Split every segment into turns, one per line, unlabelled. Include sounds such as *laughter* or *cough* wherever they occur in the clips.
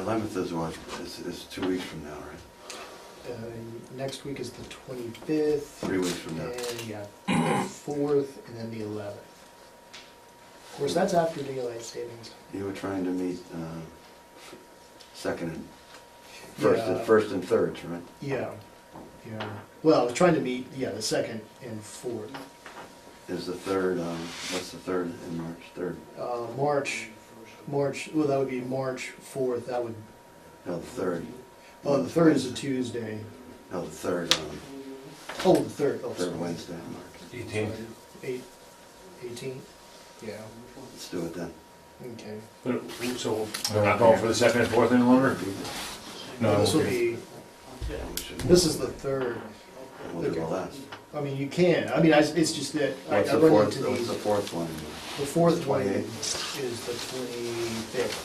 Eleventh is what, is, is two weeks from now, right?
Uh, Next week is the 25th,
Three weeks from now.
and yeah, the 4th, and then the 11th. Of course, that's after daylight savings.
You were trying to meet, uh, second and, first, and
Yeah.
first and thirds, right?
Yeah, yeah. Well, I was trying to meet, yeah, the 2nd and 4th.
Is the third, um, what's the third in March, third?
Uh, March, March, well, that would be March 4th, that would,
No, the third.
oh, the 3rd is a Tuesday.
No, the third, um,
Oh, the 3rd, oh, sorry.
third Wednesday in March.
Eighteenth.
Eight- 18th? Yeah,
Let's do it then.
okay.
So we're not going for the second and fourth any longer? No,
This will
okay.
We
be,
should-
this is the 3rd.
We'll do the last.
I mean, you can, I mean, I, it's just that I
What's
I
the
run
fourth,
into
what's
these,
the
the
fourth one?
fourth one
28?
is the twenty-fifth.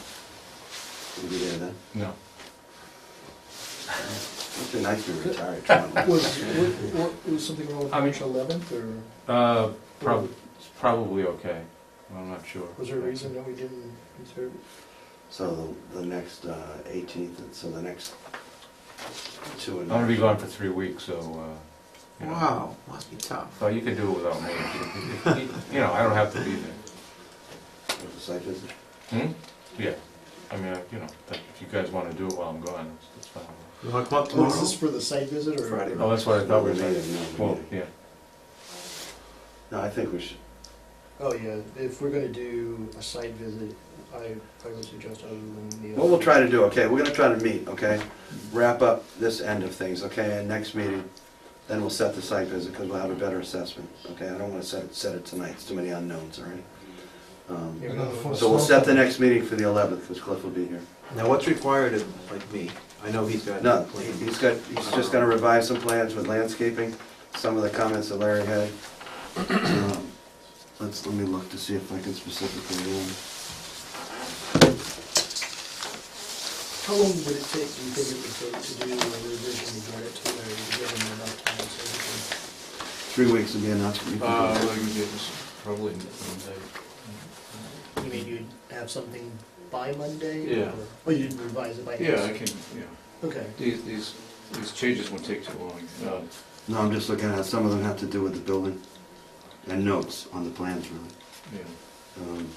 We'll be there then.
No.
It'd be nice to retire.
*laughs*
tomorrow.
Was, wa- wa- was something wrong with
I mean-
March eleventh, or
Uh, prob- it's probably okay. I'm not sure.
was there a reason that we didn't conserve it?
So the, the next, uh, eighteenth, so the next two
I'm
and.
gonna be gone for three weeks, so, uh, you know.
Wow, must be tough.
So you can do it without me. If- if- if- You know, I don't have to be there.
Was the site visit?
Hmm? Yeah. I mean, I- you know, that- if you guys wanna do it while I'm gone, it's- it's fine.
You wanna come up
Oh, is this for the site visit, or?
Friday.
Oh, that's what I thought we were
No, we
saying.
made it, no, we
Well,
made it.
yeah.
No, I think we should,
Oh, yeah, if we're gonna do a site visit, I, I would suggest other than the.
what we'll try to do, okay, we're gonna try to meet, okay? Wrap up this end of things, okay, and next meeting, then we'll set the site visit, because we'll have a better assessment, okay? I don't wanna set, it- set it tonight, it's too many unknowns, all right? Um,
Yeah, no, for-
So we'll set the next meeting for the eleventh, because Cliff will be here.
Now, what's required of, like me? I know he's got.
No,
plan.
he's got, he's just gonna revise some plans with landscaping, some of the comments that Larry had. Um, Let's, let me look to see if I can specifically, um,
How long would it take, do you think it would take to do a revision to get it to where you give them enough time so we can?
three weeks would be enough. You can do
Uh,
it.
well, you get this probably in one day.
You mean you'd have something by Monday?
Yeah.
or- Or you'd revise it by?
Yeah, I
next-
can, yeah.
Okay.
These, these, these changes won't take too long. Uh,
No, I'm just looking at, some of them have to do with the building and notes on the plans, really.
yeah.
Um,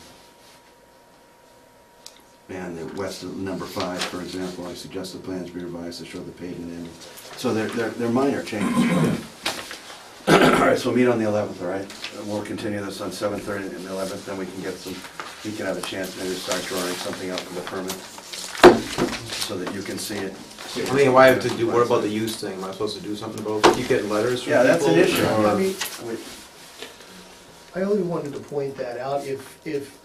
And the west of number five, for example, I suggest the plans be revised to show the pavement in. So they're, they're, they're minor changes. All right, so we'll meet on the eleventh, all right? And We'll continue this on seven thirty and the eleventh, then we can get some, you can have a chance maybe to start drawing something out for the permit so that you can see it.
I mean, why have to do, what about the use thing? Am I supposed to do something about, it? keep getting letters from people? Um,
Yeah, that's an issue.
or-
I mean,
We-
I only wanted to point that out if, if,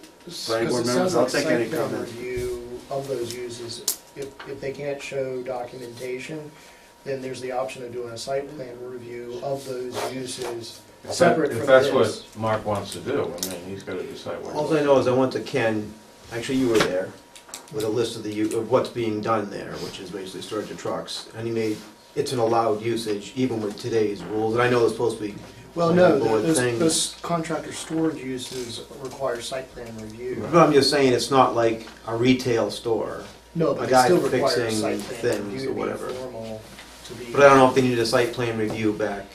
Planning board
because it
members,
sounds
I'll
like
take any
site plan
comment.
review of those uses, if, if they can't show documentation, then there's the option of doing a site plan review of those uses
If that-
separate from
If
this.
that's what Mark wants to do, I mean, he's gotta decide
All I
what.
know is I went to Ken, actually you were there, with a list of the, u- of what's being done there, which is basically storage of trucks. And he made, it's an allowed usage even with today's rules, and I know it's supposed to be.
Well, no,
planning board
those,
thing.
those contractor storage uses require site plan review.
But I'm just saying, it's not like a retail store.
No,
A
but it
guy
still requires
fixing
site plan
things
review to
or
be
whatever.
formal, to be.
But I don't know if they needed a site plan review back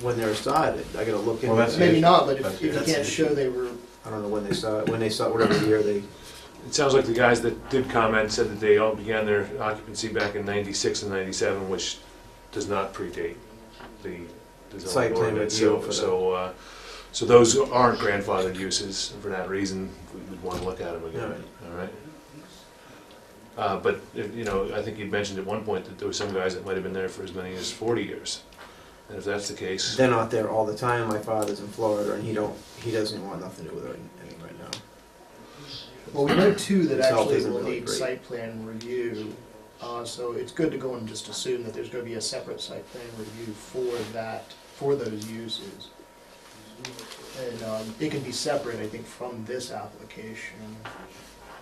when they were started. I gotta look into
Well, that's
that.
Maybe not, but if,
That's-
if you
that's-
can't show they were
I don't know when they saw it, when they saw, it, whatever year they,
It sounds like the guys that did comment said that they all began their occupancy back in ninety-six and ninety-seven, which does not predate the the
Site
zoning
plan
ordinance.
review
So,
for the-
so, uh, so those aren't grandfathered uses, and for that reason, we would wanna look at them again, all right? Uh, but, if- you know, I think you mentioned at one point that there were some guys that might have been there for as many as forty years. And if that's the case,
they're not there all the time. My father's in Florida and he don't, he doesn't want nothing to do with it any right now.
Well, we know two that
Itself
actually
isn't
will
really
need
great.
site plan review, uh, so it's good to go and just assume that there's gonna be a separate site plan review for that, for those uses. And, um, it can be separate, I think, from this application.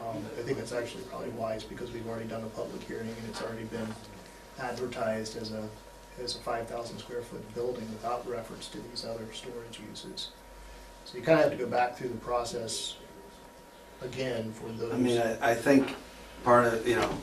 Um, I think that's actually probably wise, because we've already done a public hearing, and it's already been advertised as a, as a five thousand square foot building without reference to these other storage uses. So you kinda have to go back through the process again for those.
I mean, I, I think part of, you know,